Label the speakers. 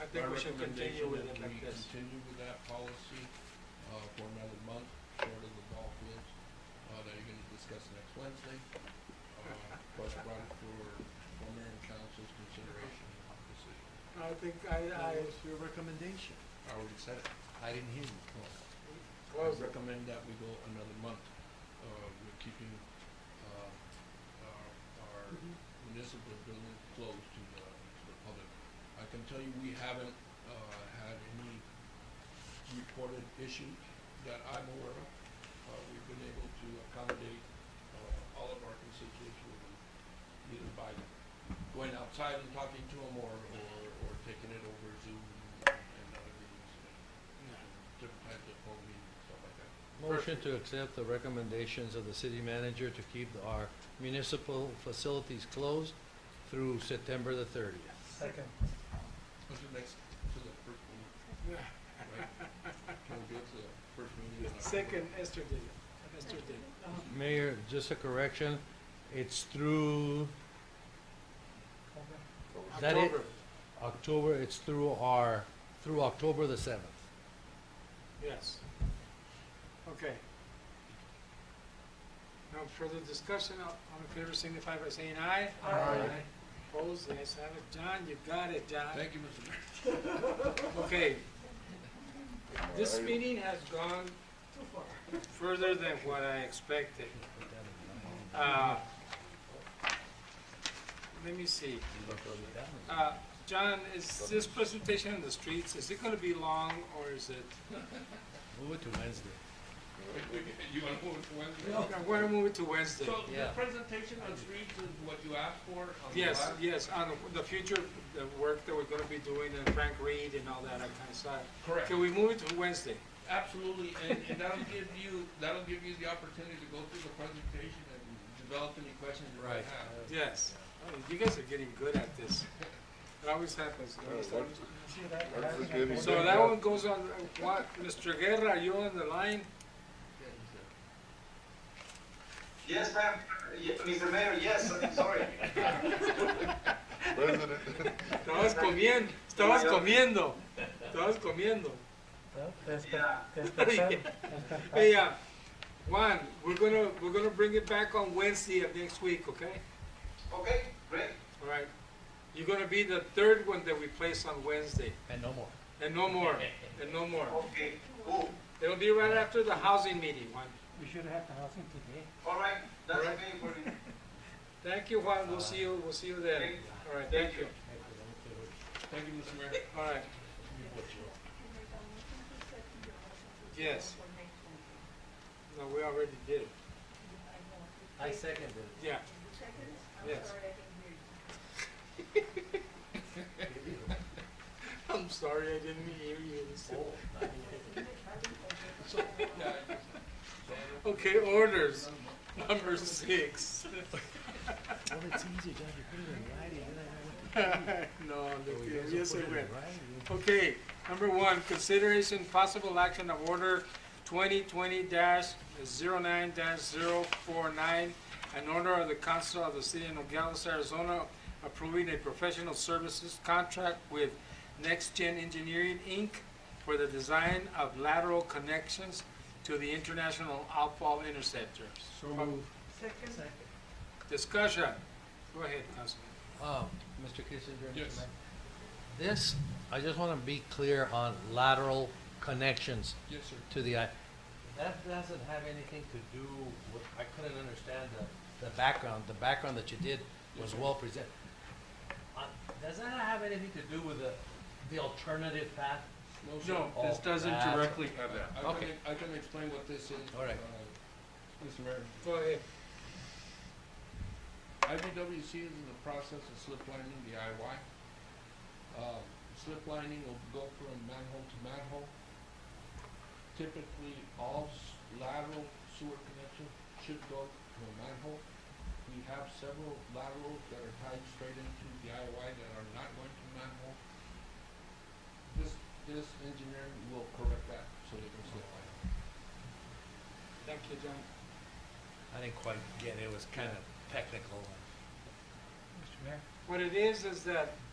Speaker 1: I think we should continue with it
Speaker 2: My
Speaker 1: like
Speaker 2: recommendation is we
Speaker 1: this.
Speaker 2: continue with that policy, uh, for another month, short of the ball fields, uh, that you're gonna discuss next Wednesday. Uh, but run for, for mayor and council's consideration and decision.
Speaker 1: I think I, I,
Speaker 3: That was your recommendation.
Speaker 2: I already said it, I didn't hear you, Paul. I
Speaker 1: close it.
Speaker 2: recommend that we go another month, uh, we're keeping, uh, our, our
Speaker 1: Mhm.
Speaker 2: municipal building closed to the, to the public. I can tell you, we haven't, uh, had any reported issues that I'm aware of. Uh, we've been able to accommodate, uh, all of our constituents, with either by going outside and talking to them or, or, or taking it over Zoom and other meetings and different types of phone meetings and stuff like that.
Speaker 4: Motion to accept the recommendations of the city manager to keep our municipal facilities closed through September the thirtieth.
Speaker 3: Second.
Speaker 2: What's the next, to the first meeting, right? Can we go to the first meeting? in October?
Speaker 1: Second, yesterday, yesterday.
Speaker 4: Mayor, just a correction, it's through, That it-
Speaker 1: October,
Speaker 4: October, it's through our, through October the seventh.
Speaker 1: yes. Okay. No further discussion, all all in favor signify by saying aye.
Speaker 3: Aye. Aye.
Speaker 1: Opposed, yes, have it, John, you got it, John.
Speaker 2: Thank you, Mr. Mayor.
Speaker 1: Okay. This meeting has gone further than what I expected. Uh, Let me see. Uh, John, is this presentation on the streets, is it gonna be long or is it?
Speaker 4: Move it to Wednesday.
Speaker 2: You wanna move it to Wednesday?
Speaker 1: I'm gonna move it to Wednesday.
Speaker 2: So the
Speaker 4: Yeah.
Speaker 2: presentation on streets is what you asked for on the
Speaker 1: Yes,
Speaker 2: last-
Speaker 1: yes, on the future, the work that we're gonna be doing and Frank Reed and all that, that kind of stuff.
Speaker 2: Correct.
Speaker 1: Can we move it to Wednesday?
Speaker 2: Absolutely, and, and that'll give you, that'll give you the opportunity to go through the presentation and develop any questions you might
Speaker 4: Right.
Speaker 2: have.
Speaker 1: Yes. Oh, You guys are getting good at this. It always happens. It always happens. So that one goes on, uh, what, Mr. Guerra, you on the line?
Speaker 5: Yes, ma'am, Ye- Mr. Mayor, yes, I'm sorry.
Speaker 1: Estabas comiendo, estabas comiendo, estabas comiendo.
Speaker 5: Yeah,
Speaker 1: Hey, uh, Juan, we're gonna, we're gonna bring it back on Wednesday of next week, okay?
Speaker 5: okay, great,
Speaker 1: All right. You're gonna be the third one that we place on Wednesday,
Speaker 4: And no more.
Speaker 1: and no more, and no more.
Speaker 5: okay, cool,
Speaker 1: It'll be right after the housing meeting, Juan.
Speaker 6: We should have the housing today.
Speaker 5: all right, that's
Speaker 1: All right.
Speaker 5: okay for me.
Speaker 1: Thank you, Juan, we'll see you, we'll see you then. All right, thank you.
Speaker 2: Thank you, Mr. Mayor.
Speaker 1: All right, Yes. no, we already did it.
Speaker 4: I second it.
Speaker 1: Yeah. Yes. I'm sorry, I didn't hear you.
Speaker 2: So, yeah, I just-
Speaker 1: Okay, orders, number six.
Speaker 3: Well, it's easy, John, you put it in writing, then I know what
Speaker 1: No,
Speaker 4: Oh,
Speaker 1: look,
Speaker 4: you guys
Speaker 1: yes,
Speaker 4: will
Speaker 1: I
Speaker 4: put it
Speaker 1: will.
Speaker 4: in writing.
Speaker 1: Okay, number one, consideration possible action of order twenty twenty 9 49 an order of the council of the city of Nogales, Arizona, approving a professional services contract with Next Gen Engineering, Inc. for the design of lateral connections to the international outfall interceptors.
Speaker 2: So moved.
Speaker 6: Second.
Speaker 1: Discussion, go ahead, Councilman.
Speaker 4: Um, Mr. Kissinger? Mr.
Speaker 2: Yes.
Speaker 4: Mayor, This, I just want to be clear on lateral connections
Speaker 2: Yes, sir.
Speaker 4: to the, I- that doesn't have anything to do with, I couldn't understand the, the background, the background that you did was well presented. Uh, Does that have anything to do with the, the alternative path?
Speaker 2: No, sir.
Speaker 1: No, this
Speaker 4: Oh,
Speaker 1: doesn't
Speaker 4: that's-
Speaker 1: directly,
Speaker 2: I
Speaker 4: Okay.
Speaker 2: can, I can explain what this is.
Speaker 4: All right.
Speaker 2: uh, Mr. Mayor.
Speaker 1: go ahead.
Speaker 2: IBWC is in the process of slip lining the IY. Um, slip lining will go from manhole to manhole. Typically, all s- lateral sewer connections should go to a manhole. We have several laterals that are tied straight into the IY that are not going to manhole. This, this engineer will correct that so they can slip line.
Speaker 1: Thank you, John.
Speaker 4: I didn't quite get it, it was kind of technical.
Speaker 6: Mr. Mayor,
Speaker 1: What it is, is that